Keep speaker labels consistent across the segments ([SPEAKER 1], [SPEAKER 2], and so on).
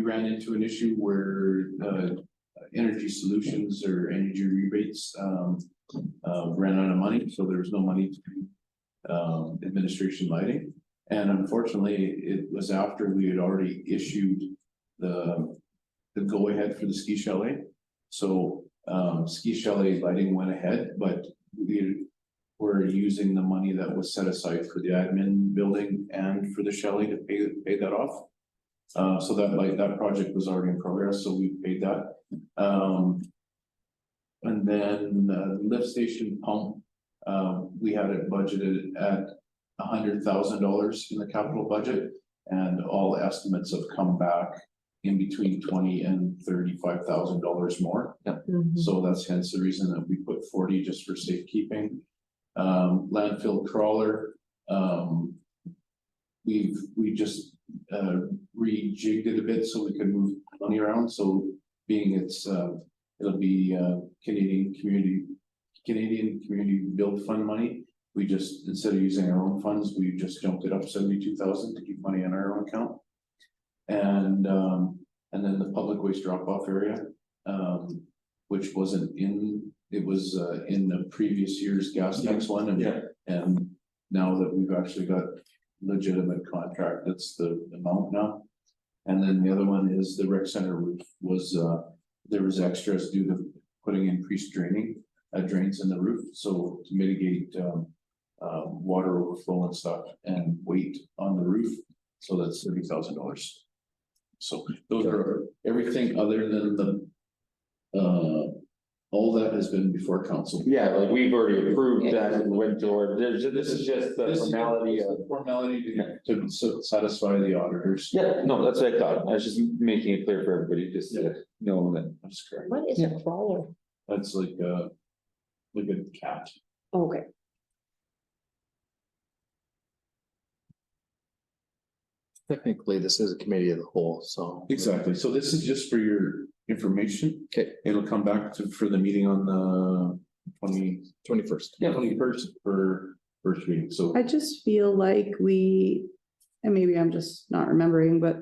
[SPEAKER 1] we ran into an issue where the energy solutions or energy rebates um uh ran out of money, so there was no money to do um administration lighting. And unfortunately, it was after we had already issued the the go ahead for the ski chalet. So um ski chalet lighting went ahead, but we were using the money that was set aside for the admin building and for the chalet to pay pay that off. Uh, so that like that project was already in progress, so we paid that. Um. And then uh, lift station pump, um, we had it budgeted at hundred thousand dollars in the capital budget. And all estimates have come back in between twenty and thirty-five thousand dollars more.
[SPEAKER 2] Mm-hmm.
[SPEAKER 1] So that's hence the reason that we put forty just for safekeeping. Um, landfill crawler, um. We've, we just, uh, rejigged it a bit so we can move money around, so being it's, uh, it'll be, uh, Canadian community. Canadian Community Build Fund money, we just, instead of using our own funds, we just jumped it up seventy-two thousand to keep money on our own account. And, um, and then the public waste drop-off area, um, which wasn't in, it was uh in the previous year's gas tax one and.
[SPEAKER 3] Yeah.
[SPEAKER 1] And now that we've actually got legitimate contract, that's the amount now. And then the other one is the rec center roof was uh, there was extras due to putting increased draining, uh drains in the roof, so to mitigate um. Um, water overflow and stuff and weight on the roof, so that's thirty thousand dollars. So those are everything other than the uh, all that has been before council.
[SPEAKER 3] Yeah, like we've already approved that and went to, there's, this is just the
[SPEAKER 1] This is-
[SPEAKER 3] formality of.
[SPEAKER 1] the Formality to, to so- satisfy the auditors.
[SPEAKER 3] Yeah, no, that's what I thought. I was just making it clear for everybody, just to know that.
[SPEAKER 1] That's correct.
[SPEAKER 2] What is a crawler?
[SPEAKER 1] That's like uh like a cat.
[SPEAKER 2] Okay,
[SPEAKER 4] Technically, this is a committee of the whole, so.
[SPEAKER 1] Exactly. So this is just for your information.
[SPEAKER 4] Okay.
[SPEAKER 1] It'll come back to, for the meeting on the twenty,
[SPEAKER 4] Twenty-first.
[SPEAKER 1] twenty first for first reading. So
[SPEAKER 5] I just feel like we, and maybe I'm just not remembering, but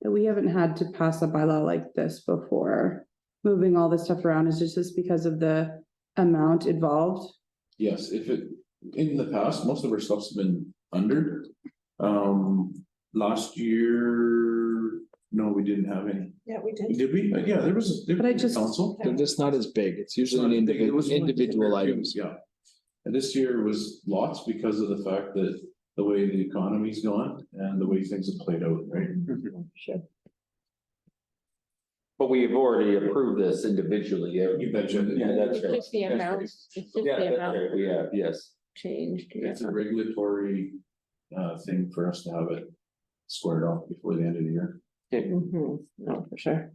[SPEAKER 5] that we haven't had to pass a bylaw like this before. Moving all this stuff around is just because of the amount involved.
[SPEAKER 1] yes, if it, in the past, most of our stuff's been under. Um, last year, no, we didn't have any.
[SPEAKER 2] yeah, we did.
[SPEAKER 1] Did we? Uh, Yeah, there was. there
[SPEAKER 5] But I
[SPEAKER 1] was a
[SPEAKER 5] just-
[SPEAKER 1] Council.
[SPEAKER 4] They're just not as big. It's usually an
[SPEAKER 1] It was
[SPEAKER 4] individual,
[SPEAKER 1] one
[SPEAKER 4] individual
[SPEAKER 1] different
[SPEAKER 4] items.
[SPEAKER 1] Yeah. And this year was lots because of the fact that the way the economy's gone and the way things have played out, right?
[SPEAKER 5] Mm-hmm.
[SPEAKER 2] Sure.
[SPEAKER 3] But we have already approved this individually. yeah.
[SPEAKER 1] You betcha.
[SPEAKER 3] Yeah, that's right.
[SPEAKER 2] Just the
[SPEAKER 3] That's right.
[SPEAKER 2] amount, it's just
[SPEAKER 3] Yeah,
[SPEAKER 2] the
[SPEAKER 3] that's
[SPEAKER 2] amount
[SPEAKER 3] right. We have, yes.
[SPEAKER 2] changed. yeah.
[SPEAKER 1] It's a regulatory uh thing for us to have it squared off before the end of the year.
[SPEAKER 2] Mhm, No, for sure.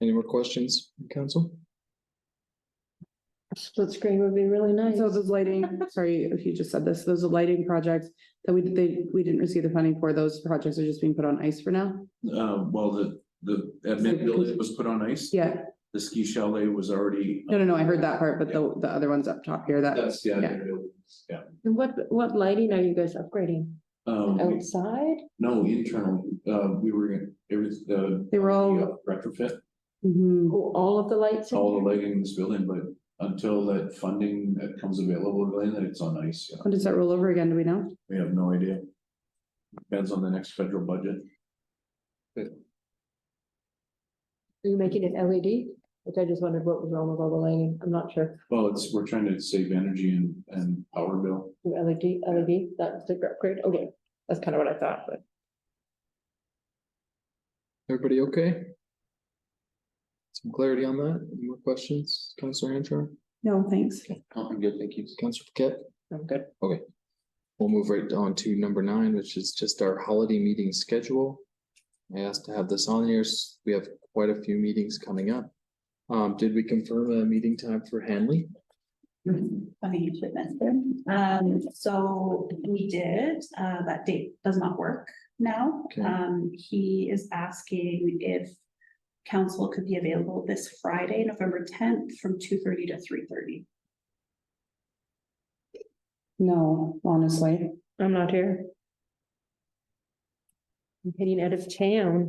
[SPEAKER 4] Any more questions, council?
[SPEAKER 2] Split screen would be really nice.
[SPEAKER 5] So those lighting, sorry if you just said this, those lighting projects that we, they, we didn't receive the funding for, those projects are just being put on ice for now.
[SPEAKER 1] Uh, well, the the admin building was put on ice.
[SPEAKER 5] Yeah,
[SPEAKER 1] The ski chalet was already.
[SPEAKER 5] no, no, no, I heard that part, but the, the other ones up top here, that,
[SPEAKER 1] That's, yeah, yeah.
[SPEAKER 2] And what, what lighting are you guys upgrading?
[SPEAKER 5] Oh.
[SPEAKER 1] Um,
[SPEAKER 2] Outside?
[SPEAKER 1] no, internal, uh, we were, in- it was uh
[SPEAKER 5] they were all,
[SPEAKER 1] yeah, retrofit.
[SPEAKER 5] Mhm.
[SPEAKER 2] Oh, All of the lights? in
[SPEAKER 1] all the
[SPEAKER 2] here?
[SPEAKER 1] lighting in this building, but until that funding that comes available, Glenn, that it's on ice, yeah.
[SPEAKER 5] when does that roll over again, do we know?
[SPEAKER 1] we have no idea. Depends on the next federal budget.
[SPEAKER 2] Are you making it LED? Which I just wondered what was wrong with all the lighting. I'm not sure.
[SPEAKER 1] Well, it's, we're trying to save energy and, and power bill.
[SPEAKER 2] Do LED, LED, that's the upgrade. Okay, that's kind of what I thought, but.
[SPEAKER 4] Everybody okay? Some clarity on that? Any more questions, Councilor Hancher?
[SPEAKER 5] No, thanks.
[SPEAKER 3] Oh, I'm good, thank you.
[SPEAKER 4] Councilor Paquette?
[SPEAKER 2] I'm good.
[SPEAKER 4] We'll move right on to number nine, which is just our holiday meeting schedule. I asked to have this on here. s- We have quite a few meetings coming up. Um, did we confirm a meeting time for Hanley?
[SPEAKER 6] Funny you should mention. Um, so we did, uh, that date does not work now.
[SPEAKER 4] Okay.
[SPEAKER 6] Um, he is asking if council could be available this Friday, November tenth, from two thirty to three thirty.
[SPEAKER 5] No, honestly,
[SPEAKER 2] I'm not here. I'm heading out of town.